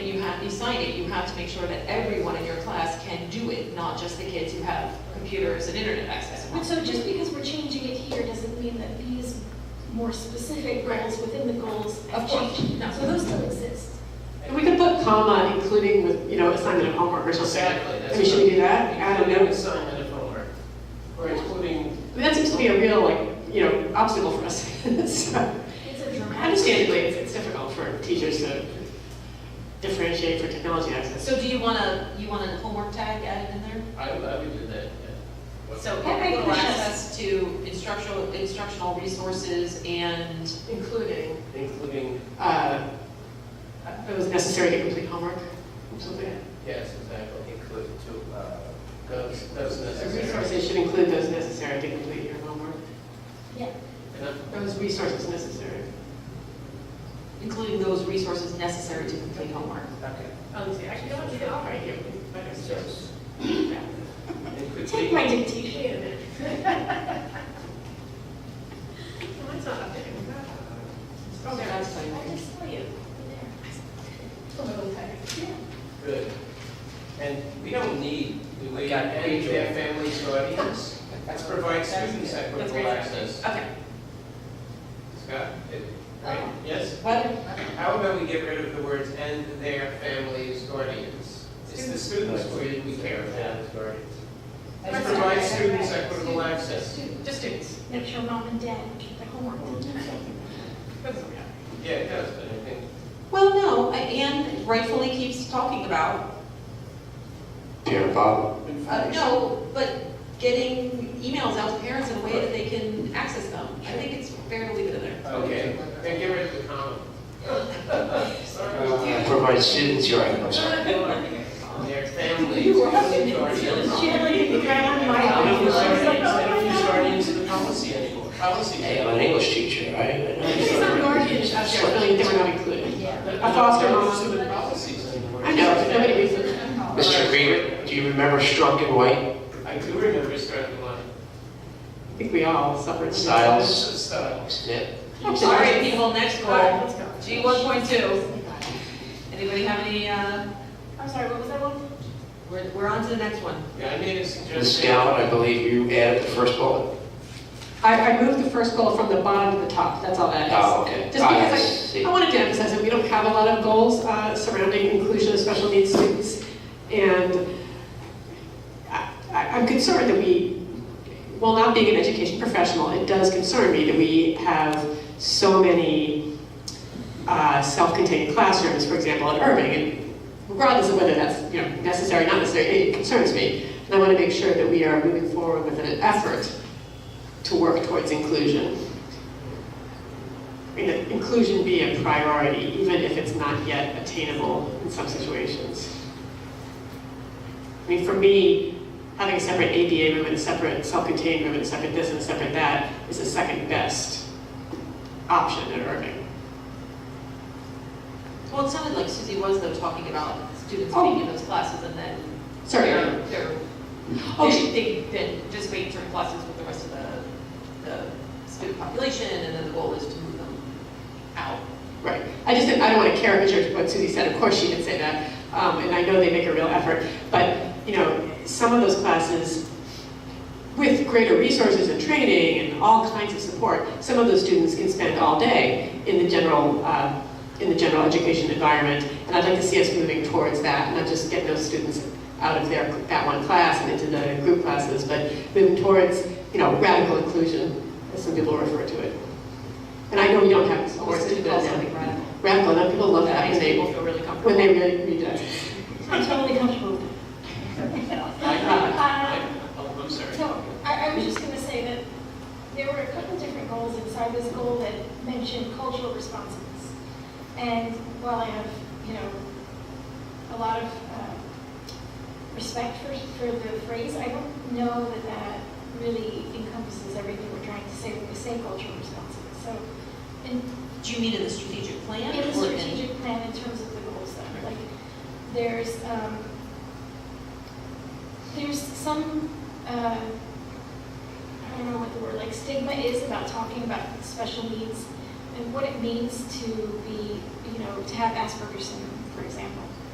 sign it, you have to make sure that everyone in your class can do it, not just the kids who have computers and internet access. But so just because we're changing it here doesn't mean that these more specific goals within the goals have Of course, changed. no. So those still exist. And we could put comma, including with, you know, assignment of homework or something. Exactly, I that's. mean, should we do that? Add a Including note? assignment of homework, or including, I mean, that seems to be a real, like, you know, obstacle for us. So, It's a dramatic. Understandably, it's, it's difficult for teachers to differentiate for technology access. So do you want to, you want a homework tag added in there? I, I would do that, yeah. So That may equitable push us- access to instructional, instructional resources and, Including. Including, Uh, it was necessary to complete homework or something. yes, exactly, include to, uh, those, those So necessary. resources should include those necessary to complete your homework. Yeah, And I'm- Those resources necessary. including those resources necessary to complete homework. Okay. Um, see, actually, don't leave it off right here. Yes. And could take we- my dictation. Oh, there, that's I fine. just saw you in there. Good. And we don't need, do we, and their families or audience? Let's provide students That's equitable great. access. Okay. Scott? it- right, Yes? Whether, How about we get rid of the words "and their families, guardians"? It's the students we, we care about. Guardians. Let's provide students equitable access. just students. Make sure mom and dad get their homework. Yeah, it does, but I think, Well, no, and rightfully keeps talking about, Yeah, Bob, uh, no, but getting emails out to parents in a way that they can access them. I think it's fair to leave it in there. okay, then get rid of the comma. Sorry. uh, provide students, you're right, I'm sorry. Their families. You were guardians. She had like the ground on my. I don't know I if was like, guardians, I oh don't know my if God. guardians are the policy anymore, policy. Hey, I'm an English teacher, right? I know. It's not guardians, I'm sure, really, they were not included. A foster mom. are the policies anymore. I know, but nobody reads it. Mr. Green, do you remember Strunk and White? I do remember starting one. I think we all suffered. Styles. Style. Snip. All right, people, next goal, Let's go. G one point two. Anybody have any, uh, I'm sorry, what was that one? we're, we're on to the next one. Yeah, I made a suggestion. The scout, I believe you added the first bullet. I, I moved the first goal from the bottom to the top, that's all that is. Oh, okay. Just I because I, see. I wanted to emphasize that we don't have a lot of goals uh, surrounding inclusion of special needs students. And I, I- I'm concerned that we, while not being an education professional, it does concern me that we have so many uh, self-contained classrooms, for example, at Irving. And regardless of whether that's, you know, necessary, or not necessary, it concerns me. And I want to make sure that we are moving forward with an effort to work towards inclusion. And that inclusion be a priority, even if it's not yet attainable in some situations. I mean, for me, having a separate ABA room and a separate self-contained room and a separate this and a separate that is the second best option at Irving. Well, it sounded like Susie was though talking about students Oh. being in those classes and then Sorry, they're, Erin. they're, Oh, they- she- they then just wait in certain classes with the rest of the, the student population and then the goal is to move them out. Right. I just, didn't- I don't want to caricature what Susie said, of course she did say that, um, and I know they make a real effort, but, you know, some of those classes, with greater resources and training and all kinds of support, some of those students can spend all day in the general, uh, in the general education environment, and I'd like to see us moving towards that, not just getting those students out of their, that one class and into the group classes, but moving towards, you know, radical inclusion, as some people refer to it. And I know we don't have supports to do that now. radical. Radical, and people love that when makes they, people feel really comfortable. when they really read it. I'm totally comfortable with I- I- oh, I'm sorry. So I, I was just gonna say that there were a couple different goals inside this goal that mentioned cultural responsiveness. And while I have, you know, a lot of uh, respect for, for the phrase, I don't know that that really encompasses everything we're trying to say when we say cultural responsiveness. So in, Do you mean in the strategic plan? in the or in- strategic plan in terms of the goals, though, like, there's, um, there's some, uh, I don't know what the word, like stigma is about talking about special needs and what it means to be, you know, to have Asperger's syndrome, for example.